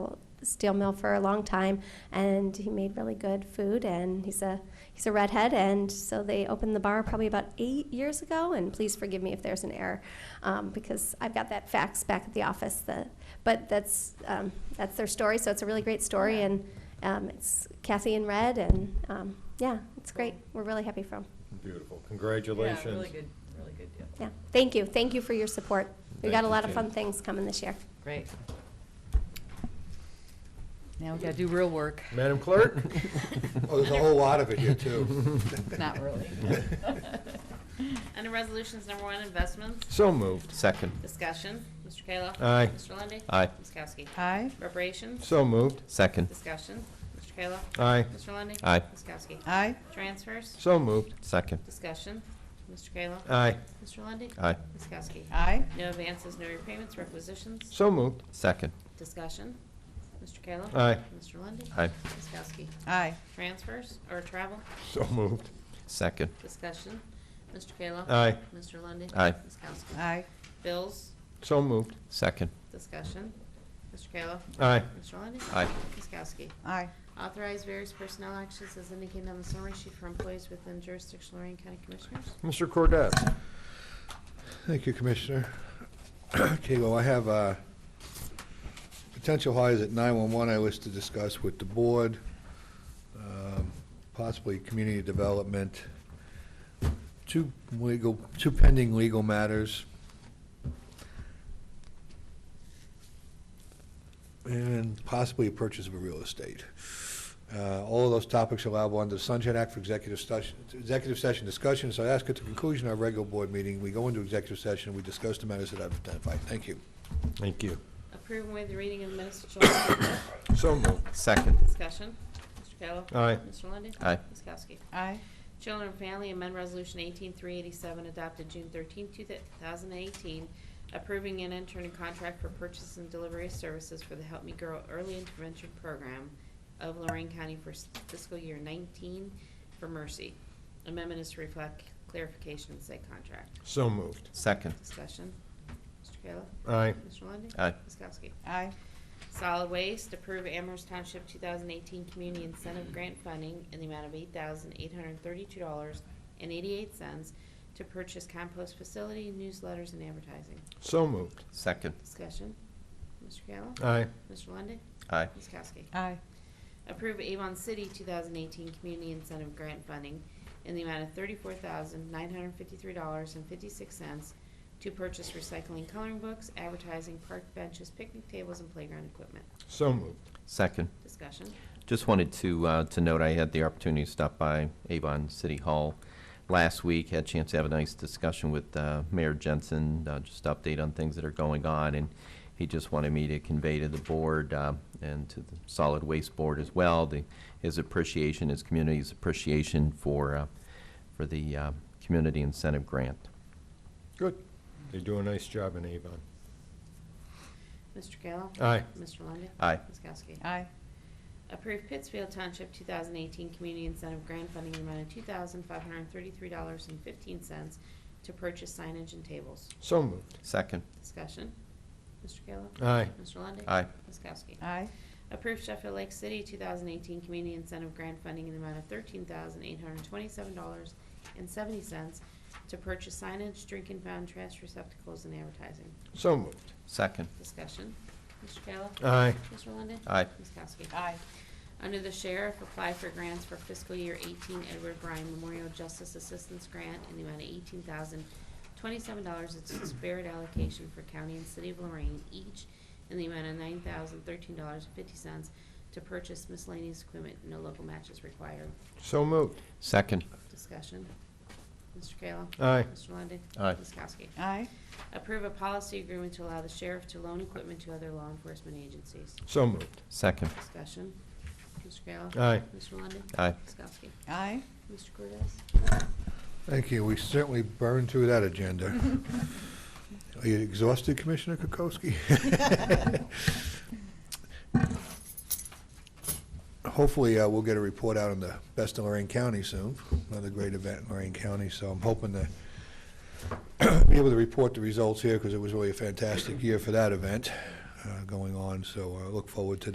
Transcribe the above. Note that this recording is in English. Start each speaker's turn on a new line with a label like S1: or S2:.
S1: steel mill for a long time, and he made really good food. And he's a he's a redhead, and so they opened the bar probably about eight years ago. And please forgive me if there's an error, um, because I've got that fax back at the office. That, but that's um, that's their story. So it's a really great story, and um, it's Kathy in red, and um, yeah, it's great. We're really happy for him.
S2: Beautiful,
S3: Yeah,
S2: congratulations.
S3: really good, really good deal.
S1: Yeah, thank you, thank you for your support. We
S2: Thank
S1: got a
S2: you,
S1: lot of
S2: Jane.
S1: fun things coming this year.
S3: Great. Now we gotta do real work.
S2: Madam Clerk?
S4: Oh, there's a whole lot of it here, too.
S3: Not really.
S5: Under Resolutions Number One, Investments,
S2: So moved.
S6: Second,
S5: Discussion, Mr. Kayla.
S2: Aye.
S5: Mr. Lundey.
S6: Aye.
S5: Ms. Kowski.
S3: Aye,
S5: Reparations,
S2: So moved.
S6: second,
S5: Discussion, Mr. Kayla.
S2: Aye.
S5: Mr. Lundey.
S6: Aye.
S5: Ms. Kowski.
S3: aye,
S5: Transfers,
S2: So moved.
S6: second,
S5: Discussion, Mr. Kayla.
S2: Aye.
S5: Mr. Lundey.
S6: aye,
S5: Ms. Kowski.
S3: aye,
S5: No advances, no repayments, requisitions,
S2: So moved.
S6: second,
S5: Discussion, Mr. Kayla.
S2: Aye.
S5: Mr. Lundey.
S6: aye,
S5: Ms. Kowski.
S3: aye,
S5: Transfers or travel,
S2: So moved.
S6: second,
S5: Discussion, Mr. Kayla.
S2: Aye.
S5: Mr. Lundey.
S6: Aye.
S5: Ms. Kowski.
S3: aye,
S5: Bills,
S2: So moved.
S6: second,
S5: Discussion, Mr. Kayla.
S2: Aye.
S5: Mr. Lundey.
S6: Aye.
S5: Ms. Kowski.
S3: aye,
S5: Authorize various personnel actions as indicated on the summary sheet for employees within jurisdiction Lorraine County Commissioners.
S2: Mr. Cordez?
S4: Thank you, Commissioner. Okay, well, I have uh, potential hires at 911 I wish to discuss with the board, um, possibly community development, two legal, two pending legal matters. And possibly a purchase of a real estate. Uh, All of those topics are allowable under the Sunshine Act for executive session, executive session discussion. So I ask at the conclusion of our regular board meeting, we go into executive session, we discuss the matters that I've identified. Thank you.
S2: Thank you.
S5: Approve and waive the reading of the minutes of July 25th.
S2: So moved.
S6: second,
S5: Discussion. Mr. Kayla.
S2: Aye.
S5: Mr. Lundey.
S6: Aye.
S5: Ms. Kowski.
S3: aye,
S5: Children and Family Amendment Resolution 18387 adopted June 13, 2018, approving an entering contract for purchase and delivery of services for the Help Me Grow Early Intervention Program of Lorraine County for s- fiscal year 19 for Mercy. Amendment is to reflect clarification in said contract.
S2: So moved.
S6: second,
S5: Discussion. Mr. Kayla?
S2: Aye.
S5: Mr. Lundey?
S6: Aye.
S5: Ms. Kowski?
S3: aye,
S5: Solid Waste, approve Amherst Township 2018 Community Incentive Grant Funding in the amount of $8,832.88 to purchase compost facility, newsletters, and advertising.
S2: So moved.
S6: second,
S5: Discussion. Mr. Kayla?
S2: Aye.
S5: Mr. Lundey?
S6: aye,
S5: Ms. Kowski?
S3: aye,
S5: Approve Avon City 2018 Community Incentive Grant Funding in the amount of $34,953.56 to purchase recycling coloring books, advertising, park benches, picnic tables, and playground equipment.
S2: So moved.
S6: second.
S5: Discussion.
S6: Just wanted to, uh, to note, I had the opportunity to stop by Avon City Hall last week, had a chance to have a nice discussion with, uh, Mayor Jensen, uh, just update on things that are going on, and he just wanted me to convey to the board, uh, and to the Solid Waste Board as well, the, his appreciation, his community's appreciation for, uh, for the, uh, community incentive grant.
S2: Good. They do a nice job in Avon.
S5: Mr. Kayla?
S2: Aye.
S5: Mr. Lundey?
S6: Aye.
S5: Ms. Kowski?
S3: aye,
S5: Approve Pittsfield Township 2018 Community Incentive Grant Funding in the amount of $2,533.15 to purchase signage and tables.
S2: So moved.
S6: Second,
S5: Discussion. Mr. Kayla?
S2: Aye.
S5: Mr. Lundey?
S6: Aye.
S5: Ms. Kowski?
S3: aye,
S5: Approve Sheffield Lake City 2018 Community Incentive Grant Funding in the amount of $13,827.70 to purchase signage, drink and fountain, trash receptacles, and advertising.
S2: So moved.
S6: second,
S5: Discussion. Mr. Kayla?
S2: Aye.
S5: Mr. Lundey?
S6: Aye.
S5: Ms. Kowski?
S3: aye,
S5: Under the sheriff, apply for grants for fiscal year eighteen Edward Bryan Memorial Justice Assistance Grant in the amount of eighteen thousand twenty-seven dollars. It's a spared allocation for county and city of Lorraine each in the amount of nine thousand thirteen dollars and fifty cents to purchase miscellaneous equipment. No local match is required.
S2: So moved.
S6: second,
S5: Discussion. Mr. Kayla.
S2: Aye.
S5: Mr. Lundey.
S6: Aye.
S5: Ms. Kowski.
S3: aye,
S5: Approve a policy agreement to allow the sheriff to loan equipment to other law enforcement agencies.
S2: So moved.
S6: second,
S5: Discussion. Mr. Kayla.
S2: Aye.
S5: Mr. Lundey.
S6: Aye.
S5: Ms. Kowski.
S3: aye,
S5: Mr. Cordez?
S4: Thank you. We certainly burned through that agenda. Are you exhausted, Commissioner Kokoski? Hopefully, uh, we'll get a report out on the Best of Lorraine County soon, another great event in Lorraine County, so I'm hoping to be able to report the results here, because it was really a fantastic year for that event uh, going on, so I look forward to